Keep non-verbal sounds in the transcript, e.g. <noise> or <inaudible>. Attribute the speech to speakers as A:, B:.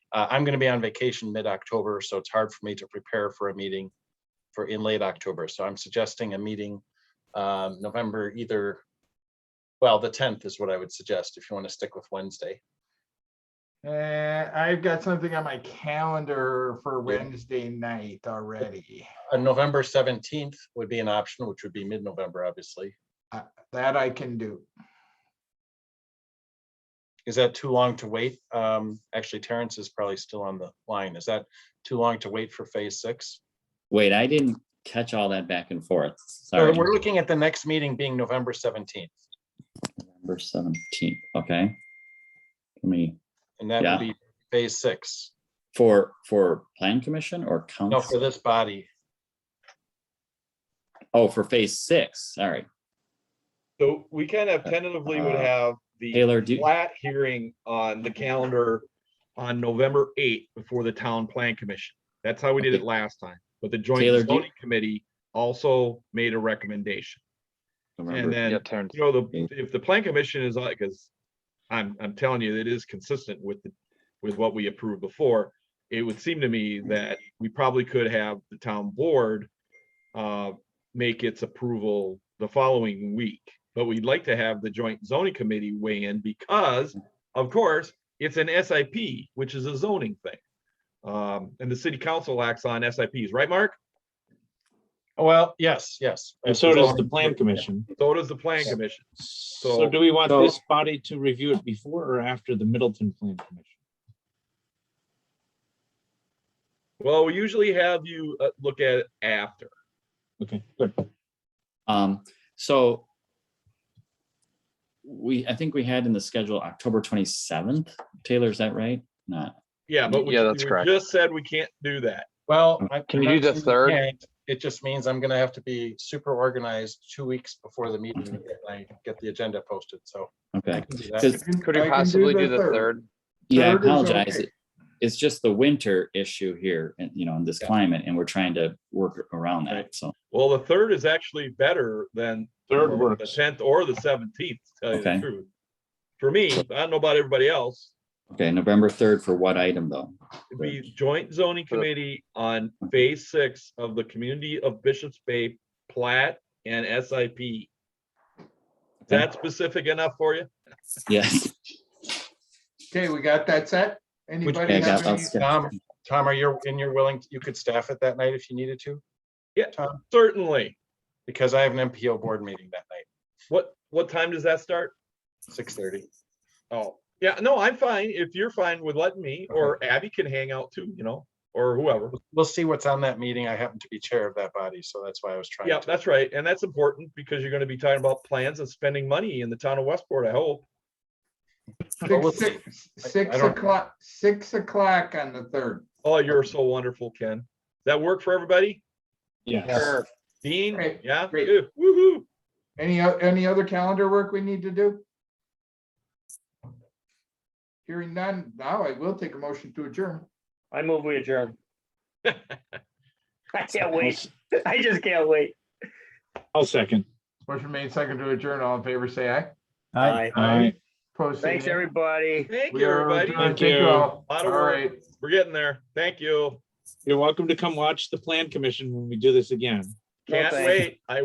A: Uh, I'm going to be on vacation mid-October, so it's hard for me to prepare for a meeting for in late October. So I'm suggesting a meeting um, November either. Well, the tenth is what I would suggest if you want to stick with Wednesday.
B: Uh, I've got something on my calendar for
A: Yeah.
B: Wednesday night already.
A: Uh, November seventeenth would be an option, which would be mid-November, obviously.
B: That I can do.
A: Is that too long to wait? Um, actually Terrence is probably still on the line. Is that too long to wait for phase six?
C: Wait, I didn't catch all that back and forth.
A: So
C: Sorry.
A: we're looking at the next meeting being November seventeenth,
C: November seventeenth, okay. Let me,
A: and that
C: Yeah.
A: would be phase six.
C: for, for plan commission or
A: No, for
C: council?
A: this body.
C: Oh, for phase six, sorry.
D: So we kind of tentatively would
C: Uh,
D: have the
C: Taylor, do,
D: flat hearing on the calendar on November eighth before the town plan commission. That's how we did it
C: Okay.
D: last time, but the joint
C: Taylor, do-
D: zoning committee also made a recommendation. And
C: November,
D: then,
E: Yeah, Terrence.
D: you know, the,
C: Yeah.
D: if the plan commission is like, because I'm, I'm telling you, it is consistent with, the with what we approved before. It would seem to me that we probably could have the town board uh, make its approval the following week. But we'd like to have the joint zoning committee weigh in because, of course, it's an SIP, which is a zoning thing. Um, and the city council acts on SIPs, right, Mark?
A: Well, yes, yes.
F: And so does the plan commission.
D: So does the plan commission.
F: So do we want this body to review it before or after the Middleton Plan Commission?
D: Well, we usually have you uh, look at it after.
F: Okay, good.
C: um, so we, I think we had in the schedule October twenty-seventh. Taylor, is that right? Not,
D: Yeah, but we
E: Yeah,
D: we
E: that's correct.
D: just said we can't do that.
A: Well. I-
E: Mm, Can
A: I'm
E: you do
A: not
E: the
A: saying we
E: third?
A: can't. It just means I'm gonna have to be super organized two weeks before the meeting and I get the agenda posted, so. I
C: okay.
A: can do
C: Does-
A: that.
B: I can-
E: Could
B: I
E: we
B: can
E: possibly do the third?
C: Yeah, I
B: Third is
C: apologize.
B: okay.
C: It- It's just the winter issue here and, you know, in this
A: Yeah.
C: climate and we're trying to work around that. So,
D: Well, the third is actually better than
F: Third
D: the
F: works.
D: tenth or the seventeenth, to tell you the
C: Okay.
D: truth. For me, I don't know about everybody else,
C: okay, November third for what item though?
D: it'd be joint zoning
E: For the-
D: committee on phase six of the community of Bishop's Bay plat and SIP. Is that specific enough for you?
C: Yes.
B: Okay, we got that set? Anybody
C: Yeah, I
B: have
C: got- I'll
B: any?
C: skip.
A: Tom, Tom, are you, and you're willing, you could staff it that night if you needed to,
D: Certainly.
A: because I have an MPO board meeting that night,
D: What, what time does that start?
A: six thirty.
D: Oh, yeah, no, I'm fine. If you're fine with letting me, or Abby can hang out too, you know, or whoever.
A: We'll see what's on that meeting. I happen to be chair of that body, so that's why I was trying.
D: Yeah,
A: to-
D: that's right. And that's important because you're gonna be talking about plans and spending money in the town of Westport, I hope.
A: Well, we'll
B: Six- six-
A: I- I
B: Six
A: don't-
B: o'clock, six o'clock on the third.
D: Oh, you're so wonderful, Ken. Does That work for everybody?
F: Yes.
D: Dean,
B: Great,
D: yeah,
B: great.
D: Good. woo-hoo.
B: Any, o- any other calendar work we need to do? Hearing none, now I will take a motion to adjourn.
G: I move we
D: <laughs>
G: adjourn. I can't wait. I just can't wait.
F: I'll second.
B: Motion made second to adjourn. All in favor, say aye.
G: Aye.
F: Aye.
B: Opposed, say
G: Thanks,
B: nay.
G: everybody.
D: Thank
B: We
D: you,
B: are
D: everybody.
B: adjourned.
F: Thank
B: Thank you
F: you.
B: all.
D: Lot
B: All
D: of work.
B: right.
D: We're getting there. Thank you.
F: You're welcome to come watch the Plan Commission when we do this again.
G: No
D: Can't
G: thanks.
D: wait. I